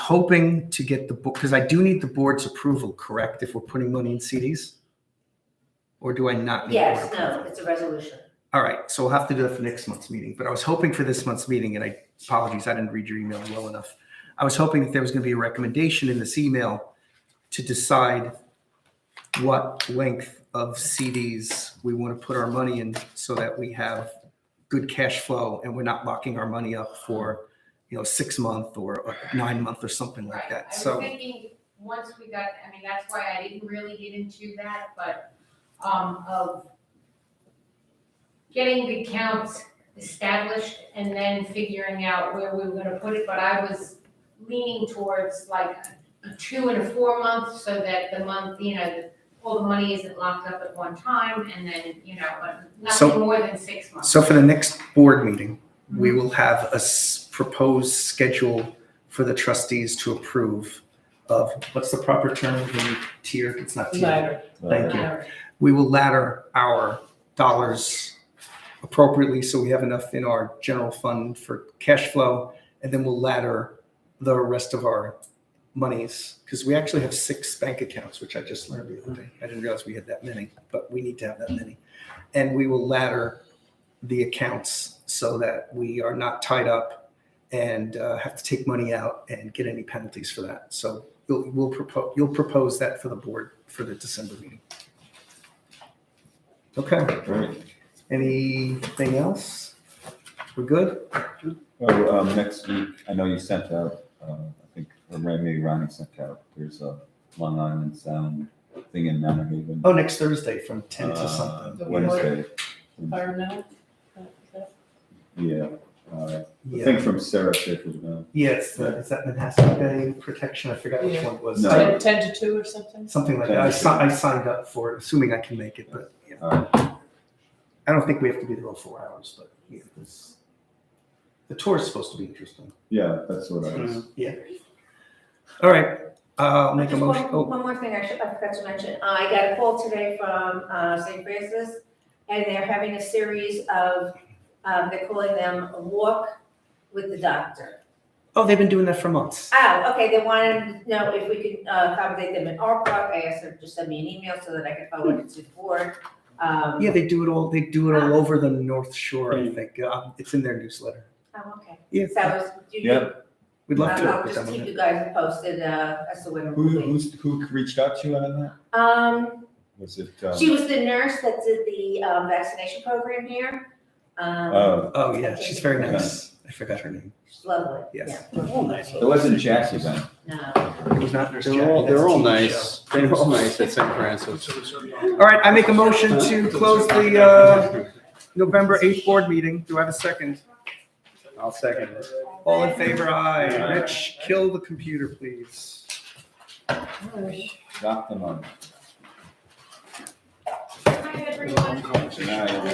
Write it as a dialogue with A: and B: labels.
A: hoping to get the book, because I do need the board's approval, correct, if we're putting money in CDs? Or do I not need? board
B: Yes,
A: approval?
B: no, it's a resolution.
A: All right, so we'll have to do that for next month's meeting, but I was hoping for this month's meeting, and I apologies, I didn't read your email well enough. I was hoping that there was going to be a recommendation in this email to decide what length of CDs we want to put our money in so that we have good cash flow and we're not locking our money up for, you know, six month or or nine month or something like
C: Right.
A: that. So.
C: I was thinking, once we got, I mean, that's why I didn't really get into that, but, um, of getting the counts established and then figuring out where we were gonna put it, but I was leaning towards like a two and a four month, so that the month, you know, all the money isn't locked up at one time, and then, you know, but
A: So-
C: nothing more than six months.
A: So for the next board meeting, we will have a s- proposed schedule for the trustees to approve of, what's the proper term, when you tier, it's not tier.
D: Uh,
A: Thank you. We will ladder our dollars appropriately, so we have enough in our general fund for cash flow. And then we'll ladder the rest of our monies, because we actually have six bank accounts, which I just learned the other day. I didn't realize we had that many, but we need to have that many. And we will ladder the accounts so that we are not tied up and uh, have to take money out and get any penalties for that. So you'll, we'll propose, you'll propose that for the board for the December meeting. Okay,
D: Alright,
A: anything else? We're good?
D: well, um, next week, I know you sent out, um, I think, or maybe Ronnie sent out, there's a Long Island Sound thing in Mount Haven.
A: Oh, next Thursday from 10
D: uh,
A: to something.
D: Wednesday,
E: Environmental? uh,
D: yeah, uh, I
A: Yeah,
D: think from Sarah Fisher, no,
A: yeah, it's, the- is that Manhasset Bay Protection? I forgot which
E: Yeah.
A: one it was.
D: No.
E: Ten, ten to two or something?
A: Something like that. I si- I signed up for it, assuming I can make it, but yeah.
D: alright,
A: I don't think we have to be there all four hours, but yeah, this, the tour is supposed to be interesting.
D: yeah, that's what I was.
A: Yeah. All right, uh, I'll make a
B: Just
A: motion.
B: one,
A: Oh,
B: one more thing I should, I forgot to mention, Uh, I got a call today from, uh, St. Francis, and they're having a series of, um, they're calling them a walk with the doctor.
A: oh, they've been doing that for months.
B: Oh, okay, they wanted to know if we could uh, accommodate them in our park, I asked them to send me an email so that I could forward it to the board. Um,
A: Yeah, they do it all, they do it
B: Ah.
A: all over the North Shore, I think. Uh, It's in their newsletter.
B: Oh, okay,
A: Yeah,
B: so, you,
D: Yeah.
B: you-
A: we'd love to
B: Uh,
A: Mm-hmm.
B: I'll
A: work with
B: just
A: them on
B: keep
A: it.
B: you guys posted, uh, as to when we're
D: Who,
B: moving.
D: who's, who reached out to you on that?
B: Um,
D: Was it, um,
B: She was the nurse that did the um, vaccination program here. Um,
D: oh,
A: Oh, yeah, she's very nice. I forgot her name.
B: she's lovely. um,
A: Yes.
D: it wasn't Jackie then,
B: Yeah. No.
A: It was not Nurse
F: They're all,
A: Jackie, that's
F: they're
A: a
F: all
A: TV
F: nice.
A: show.
F: They're all nice at St. Francis.
A: All right, I make a motion to close the uh, November 8th board meeting. Do I have a second?
F: I'll second it.
A: All in favor, aye.
D: Aye.
A: Rich, kill the computer, please.
D: Drop them on.
C: Hi, everyone.
D: Tonight.